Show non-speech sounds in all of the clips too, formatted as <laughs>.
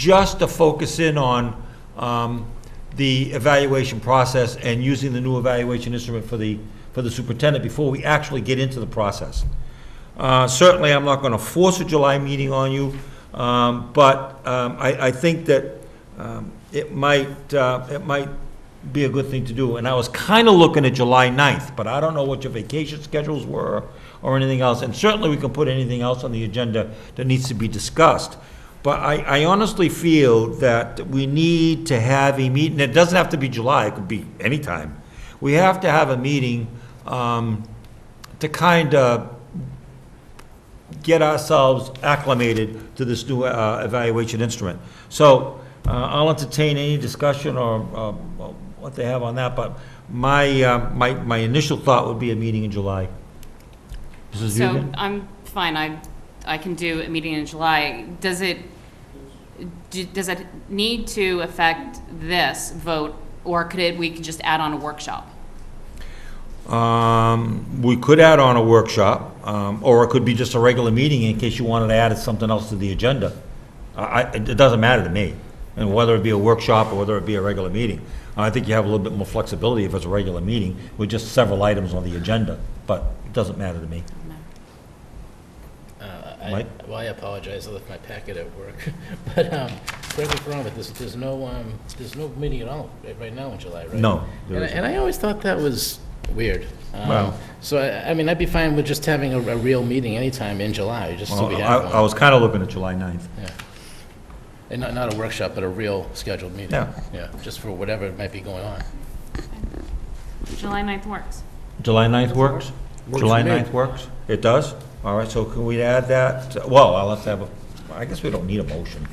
just to focus in on um, the evaluation process and using the new evaluation instrument for the, for the superintendent before we actually get into the process. Uh, Certainly, I'm not going to force a July meeting on you, um, but um, I, I think that um, it might, uh, it might be a good thing to do. And I was kind of looking at July 9th, but I don't know what your vacation schedules were or anything else. And certainly, we can put anything else on the agenda that needs to be discussed. But I, I honestly feel that we need to have a meeting, it doesn't have to be July, it could be any time. We have to have a meeting um, to kind of get ourselves acclimated to this new uh, evaluation instrument. So uh, I'll entertain any discussion or uh, what they have on that, but my, uh, my, my initial thought would be a meeting in July. Mrs. So Dugan? I'm fine, I, I can do a meeting in July. Does it, do- does it need to affect this vote, or could it, we could just add on a workshop? Um, We could add on a workshop, um, or it could be just a regular meeting in case you wanted to add something else to the agenda. I, I- it doesn't matter to me, and whether it be a workshop or whether it be a regular meeting. I think you have a little bit more flexibility if it's a regular meeting with just several items on the agenda, but it doesn't matter to me. Uh, I- Mike? Well, I apologize, I left my packet at work. <laughs> But, um, correct me if I'm wrong, but there's, there's no, um, there's no meeting at all right- right now in July, right? No, there And I- isn't. and I always thought that was weird. Um, Well- So, I I mean, I'd be fine with just having a a real meeting anytime in July, just so Well, we I have I one. was kind of looking at July 9th. And not, not a workshop, but a real scheduled meeting. Yeah. Yeah, just for whatever might be going on. July 9th works. July 9th works? Works July for me. 9th works? It does? All right, so can we add that? Well, I'll have to have, a. I guess we don't need a motion.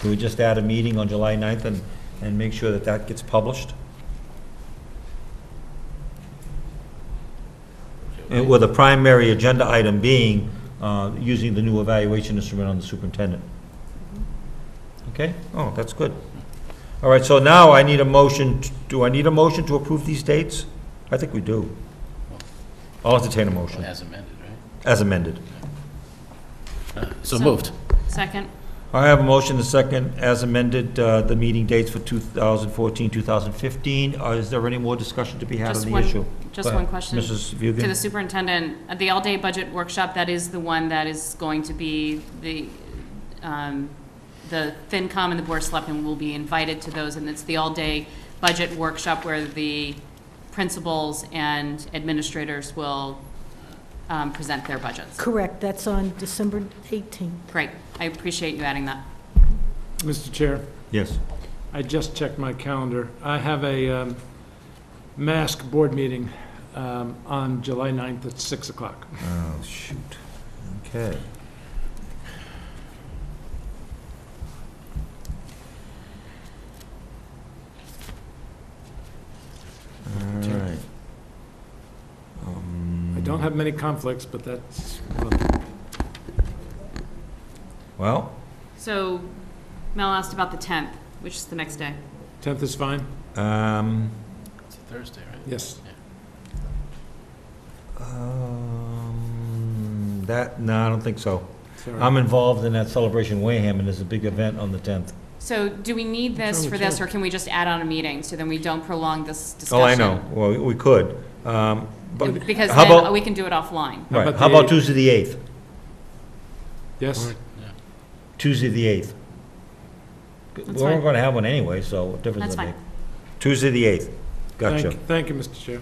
Can we just add a meeting on July 9th and, and make sure that that gets published? And With a primary agenda item being, uh, using the new evaluation instrument on the superintendent. Okay? Oh, that's good. All right, so now I need a motion, t- do I need a motion to approve these dates? I think we do. I'll entertain a motion, As amended, right? Uh, as amended. So moved. Second, I have a motion, a second, as amended, uh, the meeting dates for 2014, 2015. Uh, Is there any more discussion to be had Just on the one- issue? just Go ahead. one question. Mrs. to the Vugan? superintendent, at the all-day budget workshop, that is the one that is going to be the, um, the FinCom and the Board of Selectmen will be invited to those, and it's the all-day budget workshop where the principals and administrators will um, present their budgets. Correct, that's on December 18th. Great, I appreciate you adding that. Mr. Chair, Yes. I just checked my calendar. I have a um, mask board meeting um, on July 9th at 6 o'clock. Oh, shoot. Okay. All right. I don't Um, have many conflicts, but that's, Well, So Mel asked about the 10th, which is the next day. 10th is fine? um, It's a Thursday, right? Yes. um, that, no, I don't think so. Sorry. I'm involved in that Celebration Wareham, and there's a big event on the 10th. So do we need this Sure, for this, sure. or can we just add on a meeting, so then we don't prolong this discussion? Oh, I know, well, we could, um, but, Because How then about- we can do it offline. How right, about how about the- Tuesday the 8th? Yes? Tuesday the 8th. That's We're fine. gonna have one anyway, so what difference does That's it make? fine. Tuesday the 8th, gotcha. Thank- Thank you, Mr. Chair.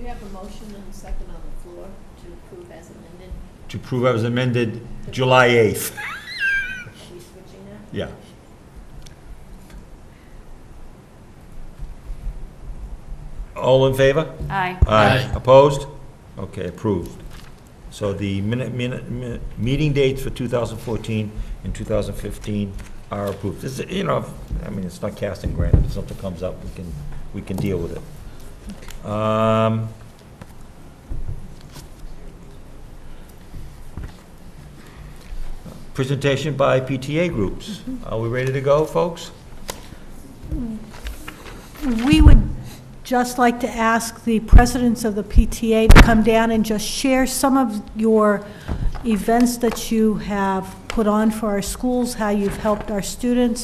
You have a motion and a second on the floor to approve as amended. To prove I was amended July 8th, Are we switching that? yeah. All in favor? Aye. Aye. Opposed? Okay, approved. So the minute, minute, minute, meeting dates for 2014 and 2015 are approved. This, is- you know, I mean, it's not casting granite, if something comes up, we can, we can deal with it. Um, Presentation by PTA groups. Are we ready to go, folks? We would just like to ask the presidents of the PTA to come down and just share some of your events that you have put on for our schools, how you've helped our students,